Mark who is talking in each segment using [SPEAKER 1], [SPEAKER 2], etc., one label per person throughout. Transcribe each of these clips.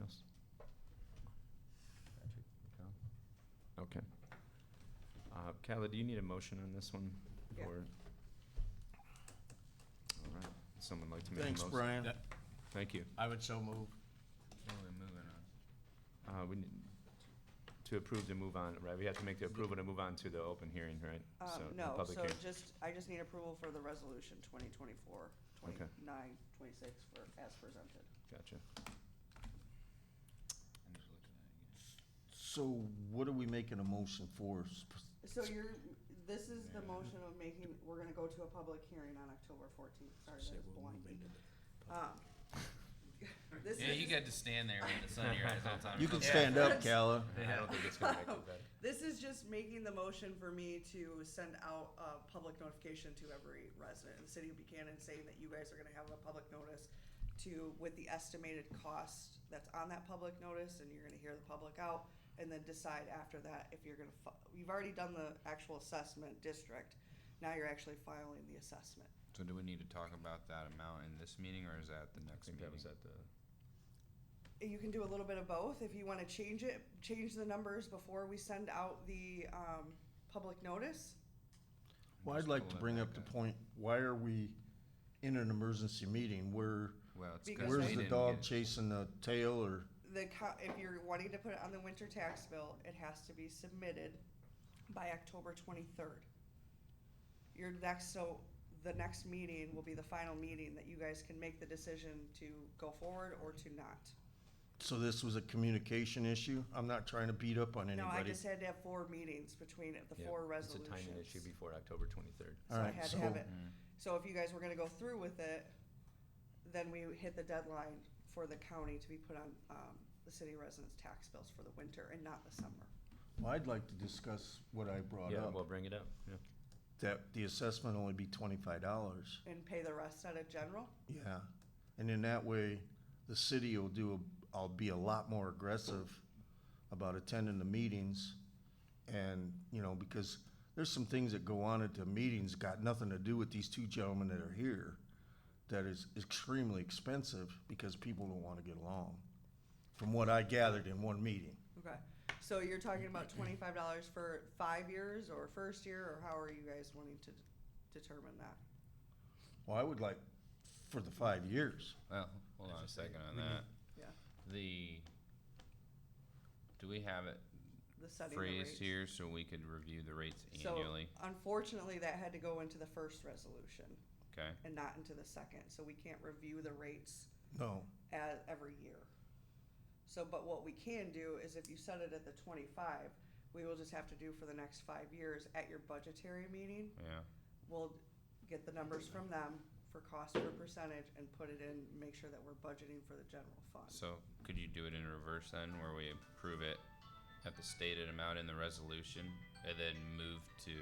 [SPEAKER 1] else? Patrick, Cal? Okay. Uh, Kala, do you need a motion on this one?
[SPEAKER 2] Yeah.
[SPEAKER 1] Or- All right, someone like to make a motion?
[SPEAKER 3] Thanks, Brian.
[SPEAKER 4] That-
[SPEAKER 1] Thank you.
[SPEAKER 4] I would so move.
[SPEAKER 5] we're moving on.
[SPEAKER 1] Uh, we need to approve to move on, right? We have to make the approval to move on to the open hearing, right? So,
[SPEAKER 2] Um,
[SPEAKER 1] the
[SPEAKER 2] no,
[SPEAKER 1] public
[SPEAKER 2] so
[SPEAKER 1] hearing.
[SPEAKER 2] just, I just need approval for the resolution twenty twenty-four, twenty-nine, twenty-six for, as presented.
[SPEAKER 1] Gotcha.
[SPEAKER 5] I'm just looking at it again.
[SPEAKER 3] So what are we making a motion for? Sp-
[SPEAKER 2] So you're, this is the
[SPEAKER 5] Yeah.
[SPEAKER 2] motion of making, we're gonna go to a public hearing on October fourteenth, sorry,
[SPEAKER 3] Say
[SPEAKER 2] that was
[SPEAKER 3] we'll
[SPEAKER 2] blank.
[SPEAKER 3] move into the
[SPEAKER 2] Um, This
[SPEAKER 5] Yeah, you
[SPEAKER 2] is,
[SPEAKER 5] got to stand there with the sun in your eyes all the time.
[SPEAKER 3] You can
[SPEAKER 5] Yeah.
[SPEAKER 3] stand up, Calla.
[SPEAKER 1] I don't think it's gonna make it better.
[SPEAKER 2] this is just making the motion for me to send out a public notification to every resident in the city of Buchanan saying that you guys are gonna have a public notice to, with the estimated cost that's on that public notice, and you're gonna hear the public out, and then decide after that if you're gonna, fi- you've already done the actual assessment district, now you're actually filing the assessment.
[SPEAKER 5] So do we need to talk about that amount in this meeting or is that the
[SPEAKER 1] I
[SPEAKER 5] next
[SPEAKER 1] think
[SPEAKER 5] meeting?
[SPEAKER 1] that was at the,
[SPEAKER 2] you can do a little bit of both if you want to change it change the numbers before we send out the um, public notice
[SPEAKER 3] Well, I'd
[SPEAKER 5] Just
[SPEAKER 3] like
[SPEAKER 5] pull
[SPEAKER 3] to
[SPEAKER 5] that
[SPEAKER 3] bring
[SPEAKER 5] back
[SPEAKER 3] up the point, why are we in an emergency meeting? Where,
[SPEAKER 5] Well, it's
[SPEAKER 2] Because
[SPEAKER 5] because
[SPEAKER 2] Where's
[SPEAKER 5] we
[SPEAKER 3] where's the
[SPEAKER 5] didn't
[SPEAKER 3] dog
[SPEAKER 5] get-
[SPEAKER 3] chasing the tail or?
[SPEAKER 2] the co- if you're wanting to put it on the winter tax bill it has to be submitted by october 23rd your next so the next meeting will be the final meeting that you guys can make the decision to go forward or to not
[SPEAKER 3] So this was a communication issue? I'm not trying to beat up on
[SPEAKER 2] no i
[SPEAKER 3] anybody.
[SPEAKER 2] just had to have four meetings between the
[SPEAKER 1] yeah,
[SPEAKER 2] four
[SPEAKER 1] it's a
[SPEAKER 2] resolutions
[SPEAKER 1] timing issue before October twenty-third.
[SPEAKER 2] So
[SPEAKER 3] All
[SPEAKER 2] I
[SPEAKER 3] right,
[SPEAKER 2] had to
[SPEAKER 3] so-
[SPEAKER 2] have it.
[SPEAKER 5] Mm.
[SPEAKER 2] So if you guys were gonna go through with it, then we hit the deadline for the county to be put on, um, the city residents' tax bills for the winter and not the summer.
[SPEAKER 3] Well, I'd like to discuss what I brought
[SPEAKER 1] Yeah,
[SPEAKER 3] up,
[SPEAKER 1] well, bring it up, yeah.
[SPEAKER 3] that the assessment only be twenty-five dollars.
[SPEAKER 2] And pay the rest out of general,
[SPEAKER 3] Yeah, and in that way, the city will do, a- I'll be a lot more aggressive about attending the meetings. And, you know, because there's some things that go on at the meetings, got nothing to do with these two gentlemen that are here, that is extremely expensive because people don't wanna get along, from what I gathered in one meeting.
[SPEAKER 2] okay? So you're talking about twenty-five dollars for five years or first year, or how are you guys wanting to determine that?
[SPEAKER 3] Well, I would like for the five years.
[SPEAKER 5] Well, hold on a second on that.
[SPEAKER 2] Yeah.
[SPEAKER 5] The, do we have it
[SPEAKER 2] The setting the
[SPEAKER 5] phrased
[SPEAKER 2] rates?
[SPEAKER 5] here so we could review the rates
[SPEAKER 2] So-
[SPEAKER 5] annually?
[SPEAKER 2] Unfortunately, that had to go into the first resolution
[SPEAKER 5] Okay,
[SPEAKER 2] and not into the second, so we can't review the rates
[SPEAKER 3] No,
[SPEAKER 2] at, every year. So, but what we can do is if you set it at the twenty-five, we will just have to do for the next five years at your budgetary meeting.
[SPEAKER 5] yeah.
[SPEAKER 2] We'll get the numbers from them for cost per percentage and put it in, make sure that we're budgeting for the general fund.
[SPEAKER 5] So could you do it in reverse then, where we approve it at the stated amount in the resolution and then move to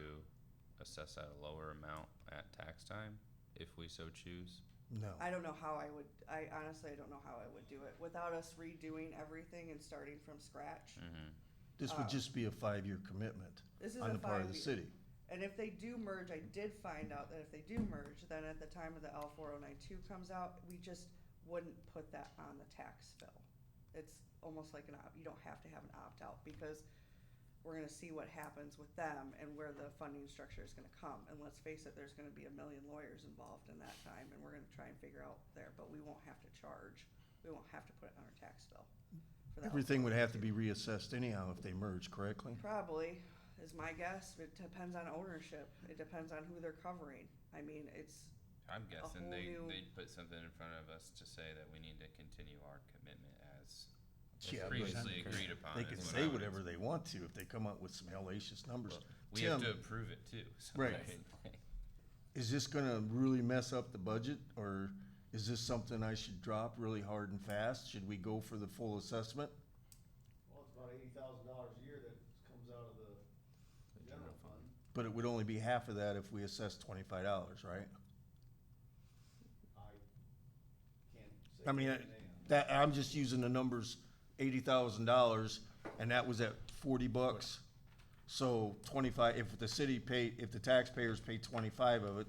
[SPEAKER 5] assess at a lower amount at tax time, if we so choose?
[SPEAKER 3] no.
[SPEAKER 2] I don't know how I would, I honestly, I don't know how I would do it without us redoing everything and starting from scratch.
[SPEAKER 5] Mm-hmm.
[SPEAKER 3] This
[SPEAKER 2] uh,
[SPEAKER 3] would just be a five-year commitment
[SPEAKER 2] This is a
[SPEAKER 3] on the part
[SPEAKER 2] five
[SPEAKER 3] of the
[SPEAKER 2] year.
[SPEAKER 3] city.
[SPEAKER 2] And if they do merge, I did find out that if they do merge, then at the time of the L four oh nine two comes out, we just wouldn't put that on the tax bill. It's almost like an opt, you don't have to have an opt-out because we're gonna see what happens with them and where the funding structure is gonna come. And let's face it, there's gonna be a million lawyers involved in that time and we're gonna try and figure out there, but we won't have to charge. We won't have to put it on our tax bill. for the oh
[SPEAKER 3] Everything would have to be reassessed anyhow if they merge correctly.
[SPEAKER 2] Probably is my guess. It depends on ownership. It depends on who they're covering. I mean, it's
[SPEAKER 5] I'm guessing
[SPEAKER 2] whole
[SPEAKER 5] they,
[SPEAKER 2] new-
[SPEAKER 5] they put something in front of us to say that we need to continue our commitment as
[SPEAKER 3] Yeah, but
[SPEAKER 5] previously agreed upon.
[SPEAKER 3] They
[SPEAKER 5] is
[SPEAKER 3] can
[SPEAKER 5] what I
[SPEAKER 3] say
[SPEAKER 5] would-
[SPEAKER 3] whatever they want to if they come up with some hellacious numbers.
[SPEAKER 5] We have to
[SPEAKER 3] Tim,
[SPEAKER 5] approve it too. so
[SPEAKER 3] Right.
[SPEAKER 5] I-
[SPEAKER 3] is this gonna really mess up the budget, or is this something I should drop really hard and fast? Should we go for the full assessment?
[SPEAKER 6] Well, it's about eighty thousand dollars a year that comes out of the general fund.
[SPEAKER 3] But it would only be half of that if we assess twenty-five dollars, right?
[SPEAKER 6] I can't say.
[SPEAKER 3] I mean, I-
[SPEAKER 6] anything on
[SPEAKER 3] that, I'm just using the numbers, eighty thousand dollars, and that was at forty bucks. So twenty-five, if the city paid, if the taxpayers paid twenty-five of it,